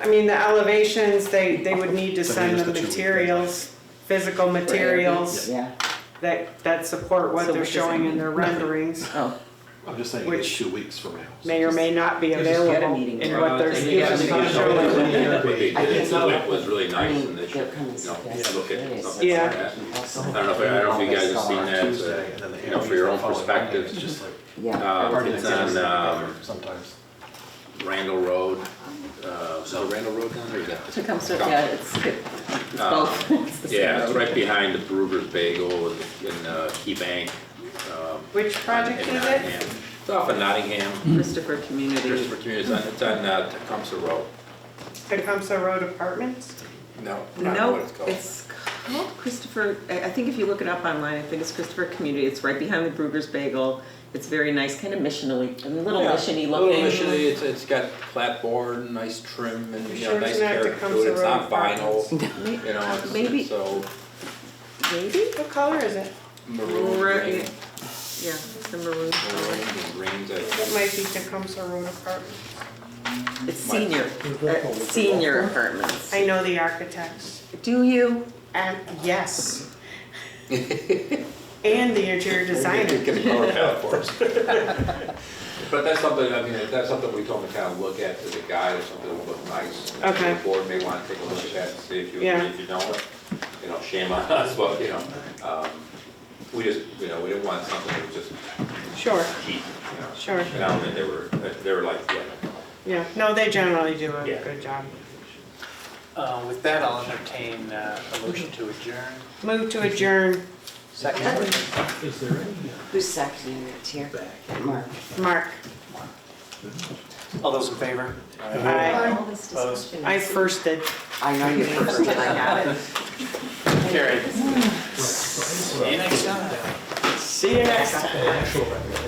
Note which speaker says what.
Speaker 1: I mean, the elevations, they, they would need to
Speaker 2: So
Speaker 1: send
Speaker 2: here's
Speaker 1: the
Speaker 2: the two we've got.
Speaker 1: materials, physical materials
Speaker 3: Yeah,
Speaker 1: that, that support what
Speaker 3: So
Speaker 1: they're
Speaker 3: what does that
Speaker 1: showing in
Speaker 3: mean?
Speaker 1: their renderings.
Speaker 3: oh,
Speaker 2: I'm just saying,
Speaker 1: Which-
Speaker 2: it's two weeks from now.
Speaker 1: May or may not be
Speaker 4: There's just
Speaker 3: gotta
Speaker 1: available
Speaker 3: meeting
Speaker 1: in
Speaker 3: tomorrow.
Speaker 1: what they're
Speaker 4: Yeah,
Speaker 1: showing.
Speaker 4: it's not
Speaker 2: Yeah.
Speaker 5: What they
Speaker 3: I
Speaker 5: did
Speaker 3: think
Speaker 5: at Summit was really
Speaker 3: I
Speaker 5: nice
Speaker 3: mean,
Speaker 5: and they
Speaker 3: they're
Speaker 5: should,
Speaker 3: coming.
Speaker 5: you know,
Speaker 3: That's
Speaker 5: look
Speaker 3: what it
Speaker 5: at
Speaker 3: is.
Speaker 5: something like that.
Speaker 3: Also-
Speaker 5: I don't know if, I don't know if you guys have seen that,
Speaker 2: Tuesday, and then
Speaker 5: uh,
Speaker 2: the
Speaker 5: you know, for your own
Speaker 2: hearings following Monday.
Speaker 5: perspective,
Speaker 2: It's just like
Speaker 3: Yeah,
Speaker 5: Uh,
Speaker 2: party
Speaker 5: it's
Speaker 2: that gets
Speaker 5: on,
Speaker 2: us
Speaker 5: um,
Speaker 2: together sometimes.
Speaker 5: Randall Road, uh, is it Randall Road down there? Yeah. Uh,
Speaker 3: Tecumseh, yeah, it's, it's both. It's the same
Speaker 5: Yeah, it's
Speaker 3: road.
Speaker 5: right behind the Brewer's Bagel and, and, uh, Key Bank. um,
Speaker 1: Which project
Speaker 5: in
Speaker 1: is it?
Speaker 5: Nottingham. It's off of Nottingham,
Speaker 3: Christopher Community.
Speaker 5: Christopher Community, it's on, it's on, uh, Tecumseh Road.
Speaker 1: Tecumseh Road Apartments?
Speaker 5: No, I don't know
Speaker 3: No,
Speaker 5: what it's called.
Speaker 3: it's called Christopher, I I think if you look it up online, I think it's Christopher Community. It's right behind the Brugger's Bagel. It's very nice, kind of missionally, a little
Speaker 6: Yeah,
Speaker 3: missiony
Speaker 6: Little
Speaker 3: looking.
Speaker 6: initially, it's, it's got clapboard, nice trim and, you
Speaker 1: Sure
Speaker 6: know, nice
Speaker 1: it's not
Speaker 6: character to
Speaker 1: Tecumseh
Speaker 6: it, it's not
Speaker 1: Road apartments.
Speaker 6: vinyl, you
Speaker 3: May-
Speaker 6: know, it's,
Speaker 3: Maybe-
Speaker 6: it's so
Speaker 3: Maybe?
Speaker 1: What color is it?
Speaker 6: maroon,
Speaker 3: Maroon,
Speaker 6: green,
Speaker 3: yeah. Yeah, it's the maroon
Speaker 5: Orange
Speaker 3: color.
Speaker 5: and greens, I
Speaker 1: It might be Tecumseh Road Apartments.
Speaker 3: It's senior, uh, senior apartments.
Speaker 1: I know the architects.
Speaker 3: Do you?
Speaker 1: And, yes. And the interior designer.
Speaker 5: Get a color palette for us. But that's something, I mean, that's something we told them to kind of look at as a guide or something that would look nice. And
Speaker 1: Okay.
Speaker 5: The board may want to take a look at that and see if you,
Speaker 1: Yeah.
Speaker 5: if you don't, you know, shame on us, but, you know, um, we just, you know, we didn't want something that was just
Speaker 1: Sure,
Speaker 5: cheap, you know.
Speaker 1: Sure.
Speaker 5: And I don't think they were, they were like, yeah,
Speaker 1: yeah. No, they generally do a
Speaker 5: Yeah.
Speaker 1: good job.
Speaker 7: Uh, With that, I'll entertain uh, a motion to adjourn.
Speaker 1: Move to adjourn.
Speaker 7: Second.
Speaker 2: Is there any?
Speaker 3: Who's sectioning it here? Mark.
Speaker 1: Mark,
Speaker 7: All those in favor?
Speaker 1: I,
Speaker 3: All this discussion.
Speaker 1: I firsted.
Speaker 3: I know you first, and I got it.
Speaker 7: Carried. See you next time.
Speaker 1: See you next time.
Speaker 2: Actual recommendation.